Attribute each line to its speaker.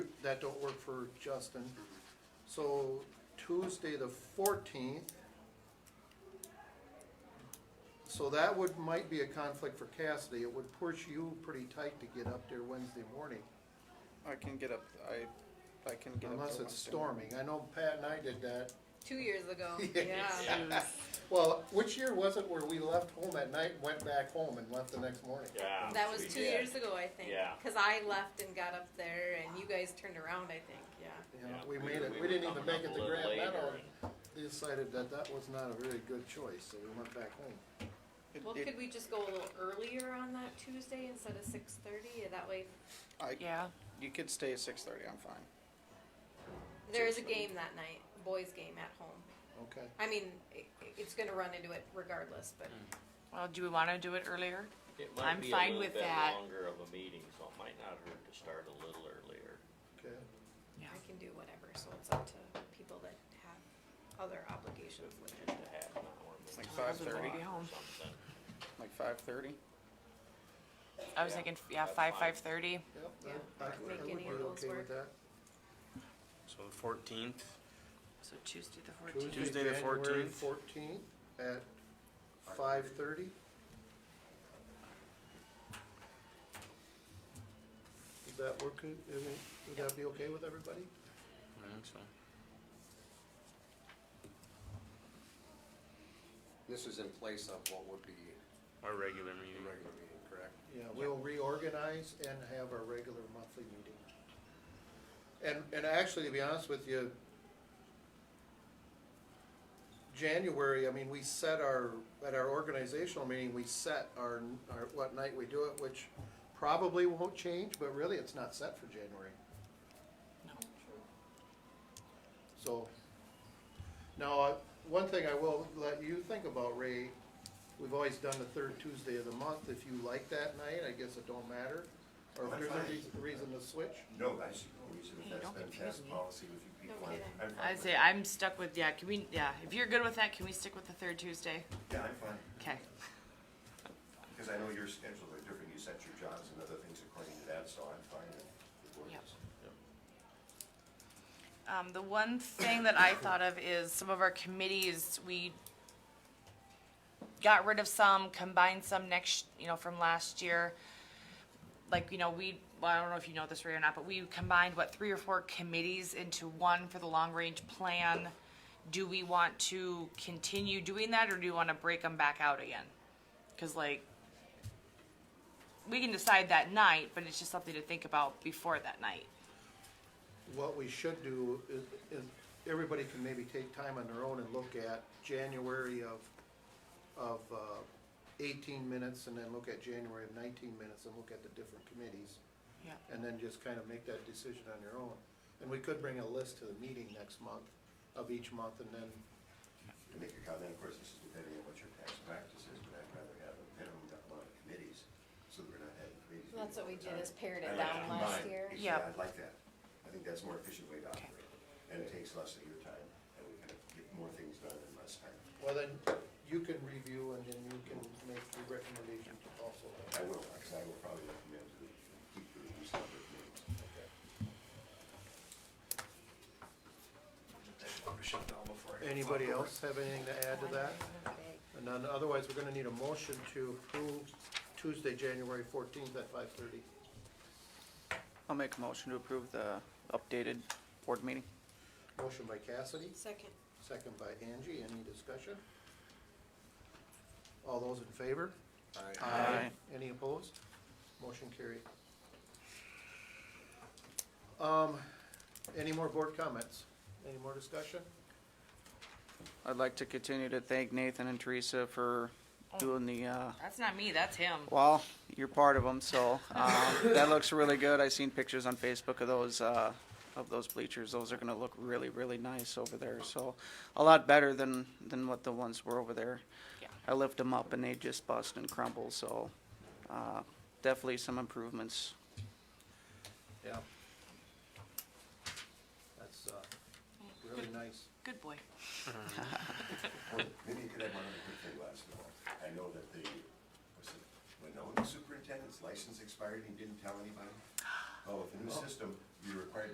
Speaker 1: that don't work for Justin. So Tuesday the fourteenth. So that would, might be a conflict for Cassidy, it would push you pretty tight to get up there Wednesday morning,
Speaker 2: I can get up, I, I can get up.
Speaker 1: unless
Speaker 2: till
Speaker 1: it's
Speaker 2: Wednesday morning.
Speaker 1: storming, I know Pat and I did that.
Speaker 3: Two years ago.
Speaker 1: Well, which year was it where we left home at night, went back home and left the next morning?
Speaker 4: Yeah.
Speaker 3: That was
Speaker 4: we
Speaker 3: two
Speaker 4: did.
Speaker 3: years ago, I think.
Speaker 4: Yeah.
Speaker 3: Because I left and got up there, and you guys turned around, I think. Yeah.
Speaker 1: You know,
Speaker 4: Yeah,
Speaker 1: we
Speaker 4: we
Speaker 1: made
Speaker 4: were-
Speaker 1: it,
Speaker 4: we
Speaker 1: we
Speaker 4: were
Speaker 1: didn't even
Speaker 4: coming
Speaker 1: make
Speaker 4: up
Speaker 1: it
Speaker 4: a
Speaker 1: to
Speaker 4: little
Speaker 1: Grand
Speaker 4: later
Speaker 1: Meadow. Decided that that was not a really good choice, so we went back home.
Speaker 2: It-
Speaker 3: Well,
Speaker 2: it-
Speaker 3: could we just go a little earlier on that Tuesday instead of six thirty? That way,
Speaker 2: I,
Speaker 5: Yeah,
Speaker 2: you could stay at six thirty, I'm fine.
Speaker 3: there is a game that night, boys' game at home.
Speaker 1: Okay,
Speaker 3: I mean, it, it's going to run into it regardless, but
Speaker 4: Mm,
Speaker 5: well, do we wanna do it earlier?
Speaker 4: It
Speaker 5: I'm
Speaker 4: might be a
Speaker 5: fine
Speaker 4: little
Speaker 5: with
Speaker 4: bit
Speaker 5: that.
Speaker 4: longer of a meeting, so it might not hurt to start a little earlier.
Speaker 1: okay.
Speaker 3: I can do whatever. So it's up to people that have other obligations.
Speaker 4: Just a half an hour.
Speaker 2: Like
Speaker 4: maybe
Speaker 2: five
Speaker 4: or
Speaker 2: thirty.
Speaker 5: Home.
Speaker 4: something.
Speaker 2: Like five thirty?
Speaker 5: I was
Speaker 4: Yeah,
Speaker 5: thinking, yeah,
Speaker 4: that's
Speaker 5: five,
Speaker 4: fine.
Speaker 5: five thirty.
Speaker 1: Yep,
Speaker 3: Yeah,
Speaker 1: I- I
Speaker 3: make
Speaker 1: would
Speaker 3: any
Speaker 1: be
Speaker 3: of those
Speaker 1: okay with
Speaker 3: work.
Speaker 1: that.
Speaker 6: So the fourteenth,
Speaker 5: So Tuesday the
Speaker 6: Tuesday the 14th.
Speaker 1: Fourteenth at five thirty. Would that work, good? I mean, would that be okay with everybody?
Speaker 6: I think so.
Speaker 7: This is in place of what would be
Speaker 6: Our regular
Speaker 7: the
Speaker 6: meeting.
Speaker 7: regular meeting, correct?
Speaker 1: Yeah, we'll reorganize and have our regular monthly meeting. And, and actually, to be honest with you, January, I mean, we set our, at our organizational meeting, we set our, our, what night we do it, which probably won't change, but really, it's not set for January. So, now, uh, one thing I will let you think about, Ray, we've always done the third Tuesday of the month, if you like that night, I guess it don't matter. Or if there's a reas- reason to switch,
Speaker 8: No, I see no reason if
Speaker 5: Hey,
Speaker 8: that's
Speaker 5: don't
Speaker 8: been
Speaker 5: confuse
Speaker 8: past
Speaker 5: me.
Speaker 8: policy with you
Speaker 3: No
Speaker 8: people. I'm-
Speaker 3: kidding.
Speaker 8: I'm fine
Speaker 5: I'd
Speaker 8: with
Speaker 5: say
Speaker 8: it.
Speaker 5: I'm stuck with, yeah, can we, yeah, if you're good with that, can we stick with the third Tuesday?
Speaker 8: Yeah, I'm fine,
Speaker 5: Okay,
Speaker 8: because I know your schedules are different, you set your jobs and other things according to that, so I'm fine with with what it
Speaker 5: Yep.
Speaker 8: is.
Speaker 5: um, the one thing that I thought of is some of our committees, we got rid of some, combined some next, you know, from last year. Like, you know, we, well, I don't know if you know this Ray or not, but we combined, what, three or four committees into one for the long-range plan. Do we want to continue doing that, or do you wanna break them back out again? Cause like, we can decide that night, but it's just something to think about before that night.
Speaker 1: what we should do is, is everybody can maybe take time on their own and look at January of, of, uh, eighteen minutes, and then look at January of nineteen minutes, and look at the different committees.
Speaker 5: Yeah.
Speaker 1: and then just kind of make that decision on your own. And we could bring a list to the meeting next month, of each month, and then,
Speaker 8: To make a comment, of course, this is depending on what your tax practice is, but I'd rather have a minimum amount of committees, so that we're not having committees.
Speaker 3: Well, that's what we
Speaker 8: meeting
Speaker 3: did,
Speaker 8: all the
Speaker 3: is
Speaker 8: time.
Speaker 3: pared it
Speaker 8: I like to
Speaker 3: down last
Speaker 8: combine.
Speaker 3: year.
Speaker 8: Actually,
Speaker 5: Yep.
Speaker 8: I like that, I think that's a more efficient way to
Speaker 5: Okay.
Speaker 8: operate, and it takes less of your time, and we can get more things done in less time.
Speaker 1: well, then you can review and then you can make the recommendation also.
Speaker 8: I will, because I will probably recommend to keep the review separate meetings.
Speaker 7: Shut down before I-
Speaker 1: Anybody else have anything to add to that? And then otherwise, we're gonna need a motion to approve Tuesday, January fourteenth at five thirty.
Speaker 2: I'll make a motion to approve the updated board meeting.
Speaker 1: Motion by Cassidy,
Speaker 3: Second.
Speaker 1: second by Angie, any discussion? All those in favor?
Speaker 2: Aye.
Speaker 1: Any opposed? Motion carried. Um, any more board comments? Any more discussion?
Speaker 2: I'd like to continue to thank Nathan and Teresa for
Speaker 3: Oh.
Speaker 2: doing the, uh,
Speaker 5: That's not me, that's him.
Speaker 2: well, you're part of them, so, um, that looks really good. I seen pictures on Facebook of those, uh, of those bleachers. Those are gonna look really, really nice over there, so a lot better than, than what the ones were over there.
Speaker 5: Yeah.
Speaker 2: I lift them up and they just bust and crumble, so, uh, definitely some improvements.
Speaker 1: Yeah. That's, uh, really nice.
Speaker 5: Good boy.
Speaker 8: Well, Maybe you could have one other quick thing last of all. I know that the, was it, when the superintendent's license expired, he didn't tell anybody? Oh, with the new system, you're required